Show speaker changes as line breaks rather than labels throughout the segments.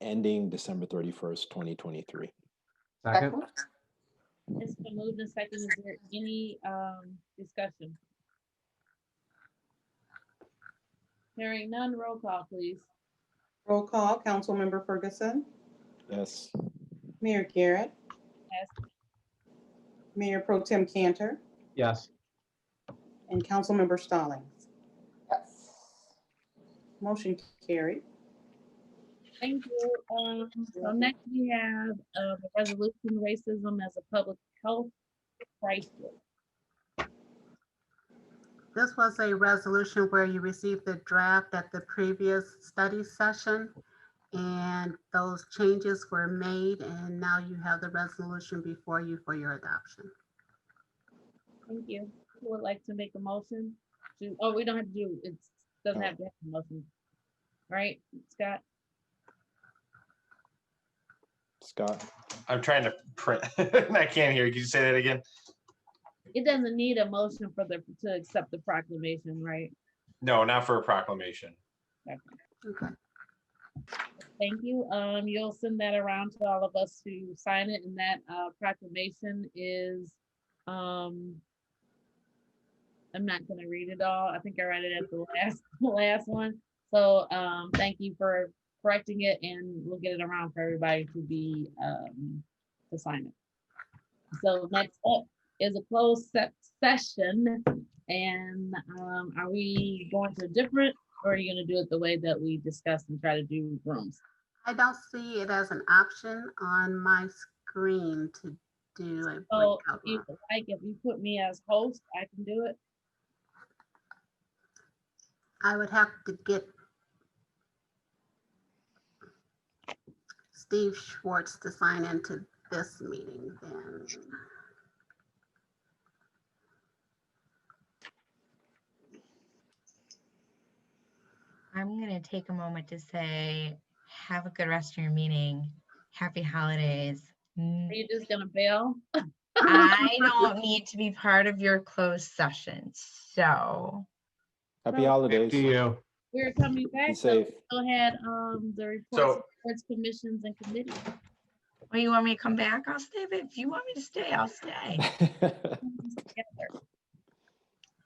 ending December 31st, 2023.
Second?
It's been moved and seconded. Is there any um, discussion? Hearing none, roll call, please.
Roll call, Councilmember Ferguson,
Yes.
Mayor Garrett,
Yes.
Mayor Pro Tem Cantor,
Yes.
and Councilmember Stallings.
Yes.
Motion carried.
Thank you. Um, So next we have uh, the resolution racism as a public health crisis.
This was a resolution where you received the draft at the previous study session. And those changes were made and now you have the resolution before you for your adoption.
Thank you. Who would like to make a motion? to- Oh, we don't have to do, it doesn't have to have a motion. Right, Scott?
Scott?
I'm trying to print. I can't hear. you. Can you say that again?
It doesn't need a motion for the, to accept the proclamation, right?
No, not for a proclamation.
Okay,
Thank you. Um, you'll send that around to all of us to sign it and that uh, proclamation is, um, I'm not gonna read it all. I think I read it at the last, last one. So, um, thank you for correcting it and we'll get it around for everybody to be, um, to sign it. So next up is a closed se- session and, um, are we going to a different or are you gonna do it the way that we discussed and try to do rooms?
I don't see it as an option on my screen to do a
So
breakout
if
room.
you like, if you put me as host, I can do it.
I would have to get Steve Schwartz to sign into this meeting then.
I'm gonna take a moment to say, have a good rest of your meeting. Happy holidays. N-
Are you just gonna bail?
I don't need to be part of your closed session, so.
Happy
No.
holidays.
To you.
We're
Be
coming back, so we
safe.
still had, um, the reports,
So-
boards, commissions and committees.
Well, Oh, you want me to come back? I'll stay, but if you want me to stay, I'll stay.
together.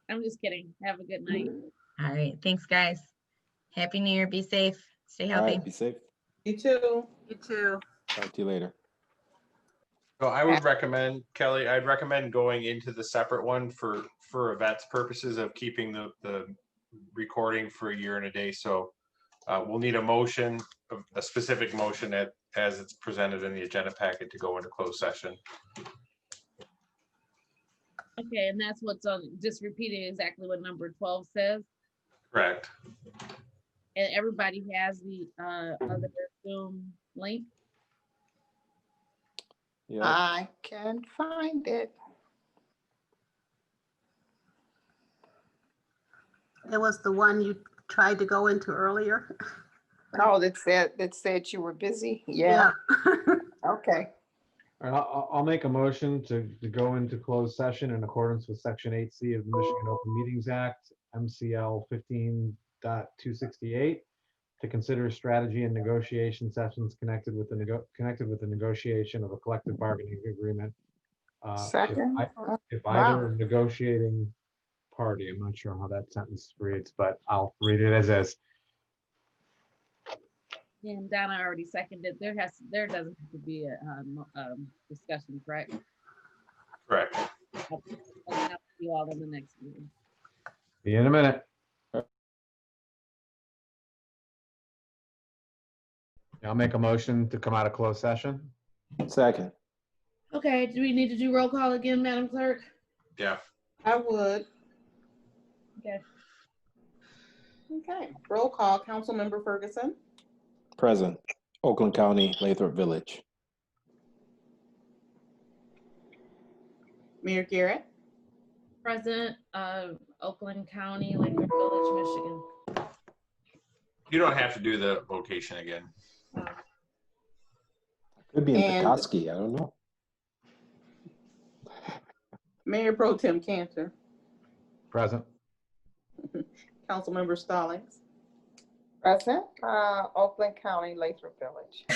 I'm just kidding. Have a good night.
All right, thanks, guys. Happy New Year. Be safe. Stay
All
healthy.
right, be safe.
You too.
You too.
Talk to you later.
So I would recommend, Kelly, I'd recommend going into the separate one for, for Yvette's purposes of keeping the, the recording for a year and a day. So uh, we'll need a motion, a- a specific motion that, as it's presented in the agenda packet to go into closed session.
Okay, and that's what's on, just repeating exactly what number twelve says.
Correct.
And everybody has the, uh, other Zoom link.
Yeah.
I can find it.
It was the one you tried to go into earlier?
No, Oh, that said, that said you were busy. Yeah, okay.
All right, I'll, I'll make a motion to, to go into closed session in accordance with section eight C of the Michigan Open Meetings Act, MCL 15.268, to consider strategy and negotiation sessions connected with the nego, connected with the negotiation of a collective bargaining agreement. uh, if
Second.
I- If
Wow.
either negotiating party, I'm not sure how that sentence reads, but I'll read it as is.
And Donna already seconded. There has, there doesn't have to be a, um, um, discussion, correct?
Correct.
I'll have You all in the next meeting.
See you in a minute. I'll make a motion to come out of closed session.
Second.
Okay, do we need to do roll call again, Madam Clerk?
Yeah.
I would.
Yes.
Okay. Roll call, Councilmember Ferguson,
Present. Oakland County, Lathrop Village.
Mayor Garrett,
Present, uh, Oakland County, Lakewood Village, Michigan.
You don't have to do the location again.
Could be in
And-
Petoskey. I don't know.
Mayor Pro Tem Cantor,
Present.
Councilmember Stallings,
Present, uh, Oakland County, Lathrop Village.